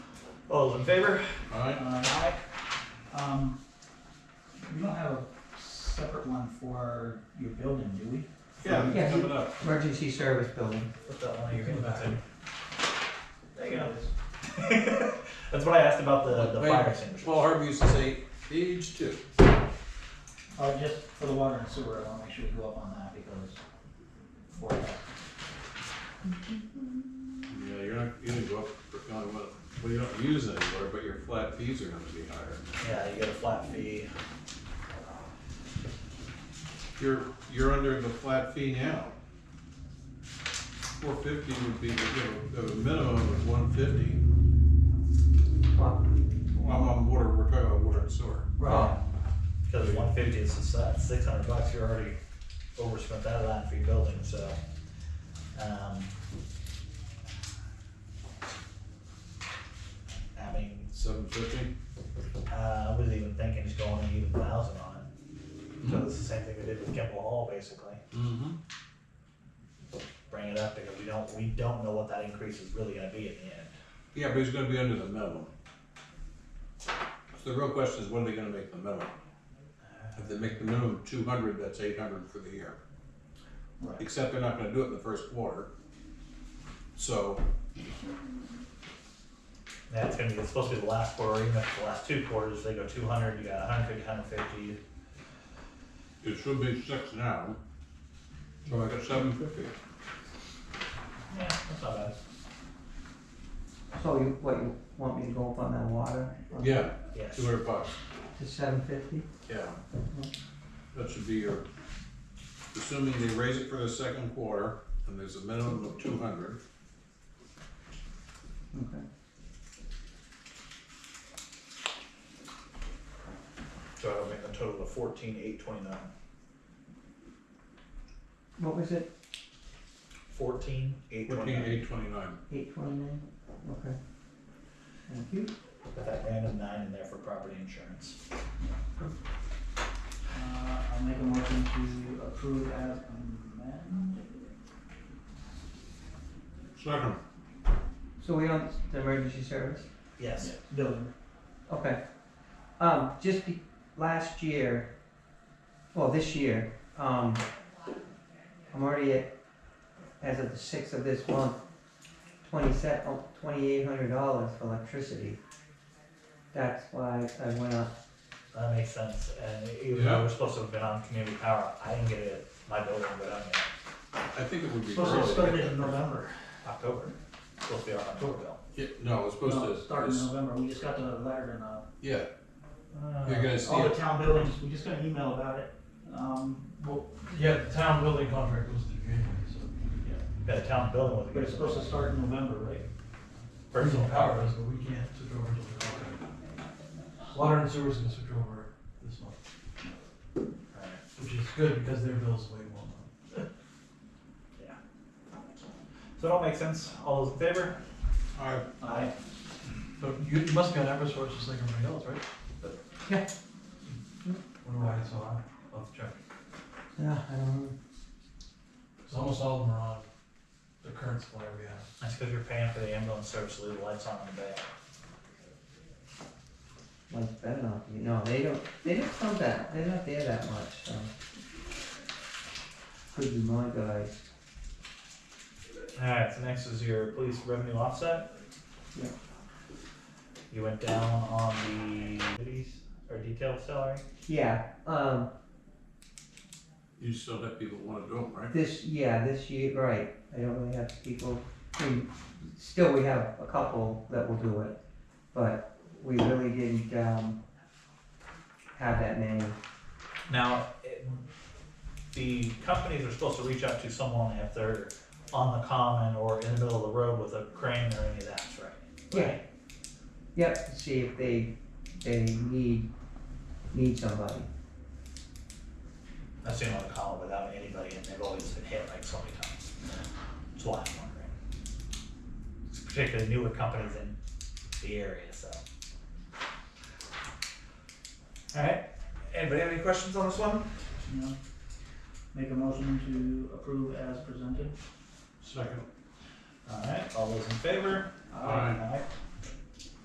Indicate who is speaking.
Speaker 1: All in favor?
Speaker 2: Alright,
Speaker 3: Aye. Um, we don't have a separate one for your building, do we?
Speaker 2: yeah,
Speaker 4: Yeah.
Speaker 2: it's coming up.
Speaker 4: Emergency service building.
Speaker 1: Put that one of your inputs in. There you go.
Speaker 3: Yes.
Speaker 1: That's what I asked about the, the
Speaker 2: Wait.
Speaker 1: fire extinguisher.
Speaker 2: Paul Harvey used to say, page two.
Speaker 3: Uh, just for the water and sewer, I wanna make sure we go up on that because for that.
Speaker 2: Yeah, you're not, you're gonna go up, uh, well, well, you don't use it anymore, but your flat fees are gonna be higher.
Speaker 1: Yeah, you get a flat fee.
Speaker 2: You're, you're under the flat fee now. Four fifty would be, you know, the minimum of one fifty.
Speaker 4: Well,
Speaker 2: I'm on water, we're talking about water and sewer.
Speaker 4: Right.
Speaker 1: Because one fifty is just that six hundred bucks. You already overspent that line for your building, so. Um, I mean,
Speaker 2: Seven fifty?
Speaker 1: uh, I was even thinking just going an even thousand on it. So it's the same thing we did with Kimball Hall, basically.
Speaker 2: Mm-hmm.
Speaker 1: Bring it up because we don't we don't know what that increase is really going to be in the end.
Speaker 2: Yeah, but he's gonna be under the minimum. So the real question is, what are they gonna make the minimum? If they make the minimum two hundred, that's eight hundred for the year.
Speaker 3: Right.
Speaker 2: Except they're not gonna do it in the first quarter. So,
Speaker 1: Yeah, it's gonna be, it's supposed to be the last quarter, even if the last two quarters, they go two hundred, you got a hundred fifty, hundred fifty.
Speaker 2: it should be six now. So I got seven fifty.
Speaker 1: Yeah, that's not bad.
Speaker 4: So you, what, you want me to go up on that water?
Speaker 2: Yeah,
Speaker 1: Yes.
Speaker 2: two hundred bucks.
Speaker 4: To seven fifty?
Speaker 2: Yeah. That should be your, assuming they raise it for the second quarter, and there's a minimum of two hundred.
Speaker 4: Okay.
Speaker 1: So that'll make a total of fourteen, eight twenty-nine.
Speaker 4: What was it?
Speaker 1: Fourteen, eight
Speaker 2: Fourteen
Speaker 1: twenty-nine.
Speaker 2: eight twenty-nine.
Speaker 4: Eight twenty-nine? Okay. Thank you.
Speaker 1: Put that random nine in there for property insurance.
Speaker 3: Uh, I'll make a motion to approve as amended.
Speaker 2: Second.
Speaker 4: So we on the emergency service?
Speaker 1: Yes.
Speaker 3: Building.
Speaker 4: Okay. Um, just be, last year, well, this year, um, I'm already at, as of the sixth of this month, twenty set, oh, twenty-eight hundred dollars for electricity. That's why I went up.
Speaker 1: That makes sense, and even though we're supposed to have been on community power, I didn't get it, my building, but I'm in
Speaker 2: I think it would be.
Speaker 3: Supposed to have
Speaker 2: early.
Speaker 3: started in November.
Speaker 1: October. Supposed to be our October bill.
Speaker 2: Yeah, no, it's supposed
Speaker 3: No,
Speaker 2: to.
Speaker 3: Start in
Speaker 2: it's-
Speaker 3: November, we just got the letter and, uh,
Speaker 2: Yeah,
Speaker 5: Uh,
Speaker 2: you're gonna see
Speaker 3: all the
Speaker 2: it.
Speaker 3: town buildings, we just got an email about it. Um, well,
Speaker 5: Yeah, the town building contract goes through January, so.
Speaker 1: Yeah, the town building was.
Speaker 3: but it's supposed to start in November, right?
Speaker 5: Personal power is, but we can't switch over to the water. Water and sewer's gonna switch over this month,
Speaker 1: Alright.
Speaker 5: which is good because their bill's way more money.
Speaker 1: Yeah. So it all makes sense, all those in favor?
Speaker 2: I,
Speaker 3: Aye.
Speaker 5: So you you must be on Eversource just like everybody else, right?
Speaker 4: Yeah.
Speaker 5: Wonder why it's so high, I'll have to check.
Speaker 4: Yeah, I don't know.
Speaker 5: Cause almost all of them are on the current supplier we have.
Speaker 1: That's because you're paying for the ambulance service, to leave the lights on in the back.
Speaker 4: One's better not be. No, they don't. They don't come that. They're not there that much. So. Could be my guys.
Speaker 1: Alright, so next is your police revenue offset.
Speaker 4: Yeah.
Speaker 1: You went down on the duties or detail salary?
Speaker 4: Yeah. Um.
Speaker 2: you still have people that wanna do them, right?
Speaker 4: This. Yeah. This year. Right. I don't really have people. I mean, still, we have a couple that will do it, but we really didn't um, have that many.
Speaker 1: Now, it- the companies are supposed to reach out to someone if they're on the common or in the middle of the road with a crane or any of that, right?
Speaker 4: Yeah. Yep. See if they they need need somebody.
Speaker 1: I've seen on the column without anybody and they've always been hit like so many times. That's why I'm wondering. It's particularly newer companies in the area, so. Alright, anybody have any questions on this one?
Speaker 3: You know, Make a motion to approve as presented.
Speaker 2: Second.
Speaker 1: Alright, all those in favor?
Speaker 2: Aye.
Speaker 1: Alright.